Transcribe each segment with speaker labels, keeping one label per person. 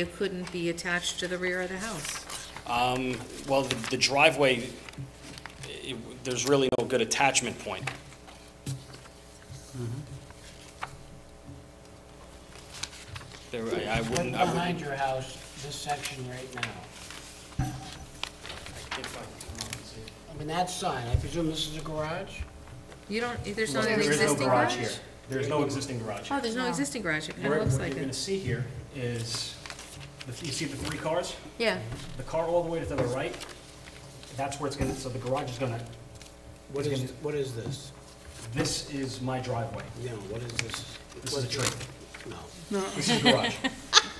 Speaker 1: It couldn't be attached to the rear of the house.
Speaker 2: Um, Well, the the driveway, it- there's really no good attachment point. There, I I
Speaker 3: Look
Speaker 2: wouldn't, I
Speaker 3: behind
Speaker 2: wouldn't.
Speaker 3: your house, this section right now. I mean, that sign, I presume this is a garage?
Speaker 1: You don't, there's not an
Speaker 4: There is no
Speaker 1: existing
Speaker 4: garage
Speaker 1: garage?
Speaker 4: here. There is no existing garage.
Speaker 1: Oh, there's no existing garage, it kind
Speaker 4: Where-
Speaker 1: of looks
Speaker 4: What
Speaker 1: like
Speaker 4: you're gonna
Speaker 1: it.
Speaker 4: see here is, the- you see the three cars?
Speaker 1: Yeah,
Speaker 4: The car all the way to the right, that's where it's gonna, so the garage is gonna,
Speaker 3: What is, what is this?
Speaker 4: this is my driveway.
Speaker 3: No, what is this?
Speaker 4: This is a tree.
Speaker 3: No.
Speaker 4: This is garage.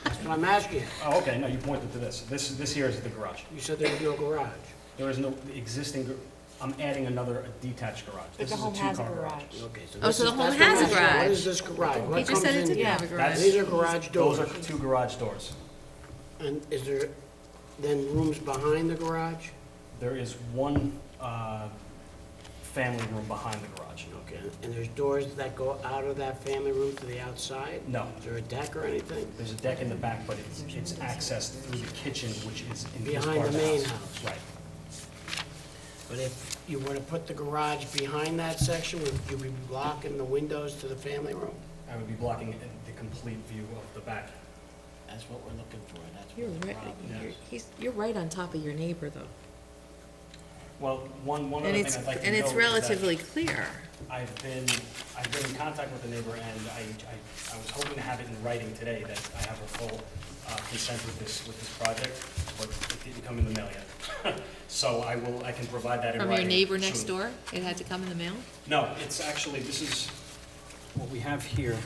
Speaker 3: That's what I'm asking. you.
Speaker 4: Oh, okay, no, you pointed to this. This, this here is the garage.
Speaker 3: You said there was no garage.
Speaker 4: There is no existing, gar- I'm adding another detached garage. This
Speaker 5: But
Speaker 4: is
Speaker 5: the
Speaker 4: a
Speaker 5: home has a
Speaker 4: two-car
Speaker 5: garage.
Speaker 4: garage.
Speaker 3: Okay, so
Speaker 1: Oh,
Speaker 3: this
Speaker 1: so
Speaker 3: is-
Speaker 1: the home
Speaker 3: that's what
Speaker 1: has a
Speaker 3: I'm asking. What
Speaker 1: garage.
Speaker 3: is this garage?
Speaker 1: he
Speaker 3: What
Speaker 1: just
Speaker 3: comes
Speaker 1: said it
Speaker 3: in
Speaker 1: didn't
Speaker 3: here?
Speaker 1: have a
Speaker 4: That's-
Speaker 1: garage.
Speaker 3: These are garage
Speaker 4: Those are
Speaker 3: doors.
Speaker 4: two garage doors.
Speaker 3: And is there then rooms behind the garage?
Speaker 4: There is one uh, family room behind the garage.
Speaker 3: Okay, and there's doors that go out of that family room to the outside?
Speaker 4: No,
Speaker 3: Is there a deck or anything?
Speaker 4: there's a deck in the back, but it's, it's accessed through the kitchen, which is in this
Speaker 3: Behind
Speaker 4: part of
Speaker 3: the
Speaker 4: the house.
Speaker 3: main house.
Speaker 4: Right.
Speaker 3: But if you were to put the garage behind that section, would you be blocking the windows to the family room?
Speaker 4: I would be blocking the complete view of the back.
Speaker 3: That's what we're looking for, that's
Speaker 1: You're
Speaker 3: what the
Speaker 1: right,
Speaker 3: problem
Speaker 1: you're-
Speaker 3: is.
Speaker 1: he's, you're right on top of your neighbor, though.
Speaker 4: Well, one, one
Speaker 1: And
Speaker 4: other
Speaker 1: it's,
Speaker 4: thing I'd like to
Speaker 1: and
Speaker 4: note
Speaker 1: it's
Speaker 4: is that
Speaker 1: relatively clear.
Speaker 4: I've been, I've been in contact with the neighbor, and I, I, I was hoping to have it in writing today, that I have a full uh, consent with this, with this project, but it didn't come in the mail yet. So I will, I can provide that in
Speaker 1: From
Speaker 4: writing.
Speaker 1: your neighbor next
Speaker 4: soon.
Speaker 1: door, it had to come in the mail?
Speaker 4: No, it's actually, this is, what we have here, There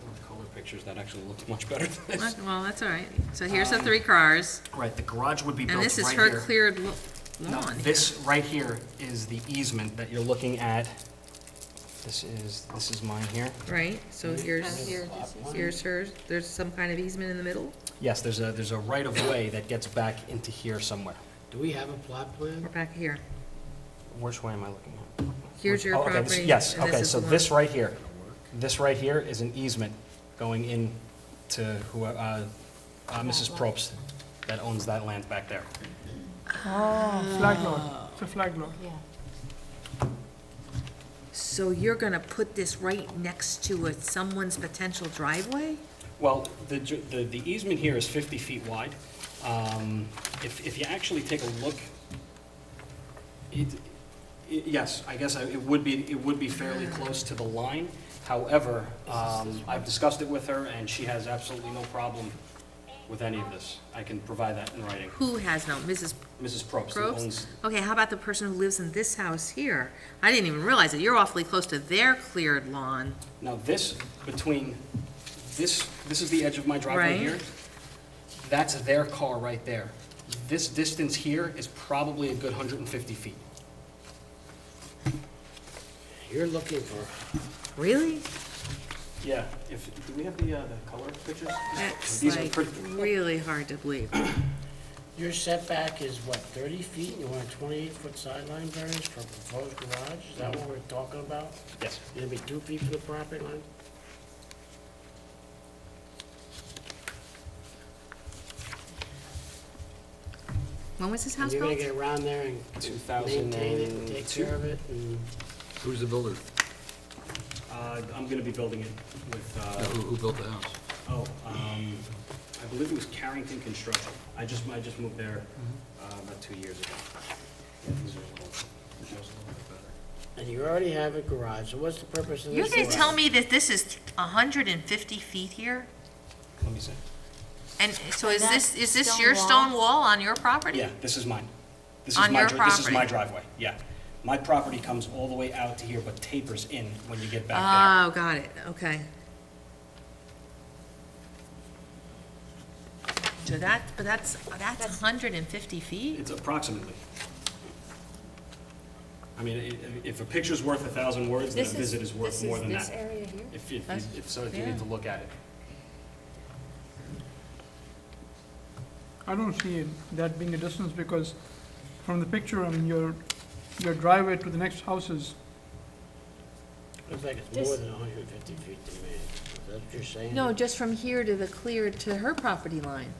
Speaker 4: were color pictures that actually look much better than this.
Speaker 1: Well, that's all right. So here's the three cars,
Speaker 4: Right, the garage would be built
Speaker 1: and
Speaker 4: Um, right
Speaker 1: this
Speaker 4: here.
Speaker 1: is her cleared lo-
Speaker 4: No,
Speaker 1: lawn.
Speaker 4: this right here is the easement that you're looking at. This is, this is mine here.
Speaker 1: Right, so here's, here's hers, there's some kind of easement in the middle?
Speaker 4: Yes, there's a, there's a right-of-way that gets back into here somewhere.
Speaker 3: Do we have a plot
Speaker 1: Or
Speaker 3: plan?
Speaker 1: back here?
Speaker 4: Which way am I looking at?
Speaker 1: Here's your
Speaker 4: Oh, okay, this-
Speaker 1: property.
Speaker 4: Yes,
Speaker 1: and this
Speaker 4: okay,
Speaker 1: is
Speaker 4: so
Speaker 1: the
Speaker 4: this
Speaker 1: lawn.
Speaker 4: right here, this right here is an easement going in to who, uh, uh, Mrs. Probst that owns that land back there.
Speaker 6: Oh, flag lot. It's a flag lot.
Speaker 5: Yeah.
Speaker 1: So you're gonna put this right next to a- someone's potential driveway?
Speaker 4: Well, the, ju- the the easement here is 50 feet wide. Um, If, if you actually take a look, it, i- yes, I guess I- it would be, it would be fairly close to the line. However, um, I've discussed it with her, and she has absolutely no problem with any of this. I can provide that in writing.
Speaker 1: Who has no, Mrs.
Speaker 4: Mrs. Probst, who
Speaker 1: Probst?
Speaker 4: owns,
Speaker 1: Okay, how about the person who lives in this house here? I didn't even realize it. You're awfully close to their cleared lawn.
Speaker 4: now this, between, this, this is the edge of my driveway
Speaker 1: Right.
Speaker 4: here. That's their car right there. This distance here is probably a good 150 feet.
Speaker 3: You're looking for,
Speaker 1: Really?
Speaker 4: Yeah, if, do we have the, uh, the color pictures?
Speaker 1: That's
Speaker 4: These are
Speaker 1: like
Speaker 4: pretty-
Speaker 1: really hard to believe.
Speaker 3: your setback is what, 30 feet? and You want a 28-foot sideline variance for a proposed garage? Is that what we're talking about?
Speaker 4: Yes.
Speaker 3: Gonna be two feet from the property line?
Speaker 1: When was this
Speaker 3: And
Speaker 1: house
Speaker 3: you're gonna
Speaker 1: built?
Speaker 3: get around there and maintain it and take
Speaker 4: 2002.
Speaker 3: care of it Mm. and...
Speaker 7: Who's the builder?
Speaker 4: Uh, I'm gonna be building it with,
Speaker 7: No,
Speaker 4: uh,
Speaker 7: Who, who built the house?
Speaker 4: oh, um, I believe it was Carrington Construction. I just, I just moved there, uh, about two years ago. Yeah, these are a little, these are a little bit better.
Speaker 3: And you already have a garage, so what's the purpose of this?
Speaker 1: You're gonna
Speaker 3: garage?
Speaker 1: tell me that this is hundred and fifty feet here?
Speaker 4: Let me see.
Speaker 1: And so is
Speaker 5: that
Speaker 1: this, is this
Speaker 5: stone
Speaker 1: your
Speaker 5: wall?
Speaker 1: stone wall on your property?
Speaker 4: Yeah, this is mine. This is
Speaker 1: On
Speaker 4: my,
Speaker 1: your
Speaker 4: dri- this is my
Speaker 1: property.
Speaker 4: driveway, yeah. My property comes all the way out to here, but tapers in when you get back
Speaker 1: Oh, got it, okay. So that, but that's, that's hundred and fifty
Speaker 4: there.
Speaker 1: feet?
Speaker 4: It's approximately. I mean, i- if a picture's worth a thousand words, then a
Speaker 5: This
Speaker 4: visit is worth more than that.
Speaker 5: This area here?
Speaker 4: If, if,
Speaker 1: That's-
Speaker 4: if so, if you
Speaker 1: yeah.
Speaker 4: need to look at it.
Speaker 6: I don't see it- that being a distance because from the picture, I mean, your, your driveway to the next house is
Speaker 3: Looks like it's more than hundred and fifty feet to me. That's what you're saying?
Speaker 1: No, just from here to the clear to her property line.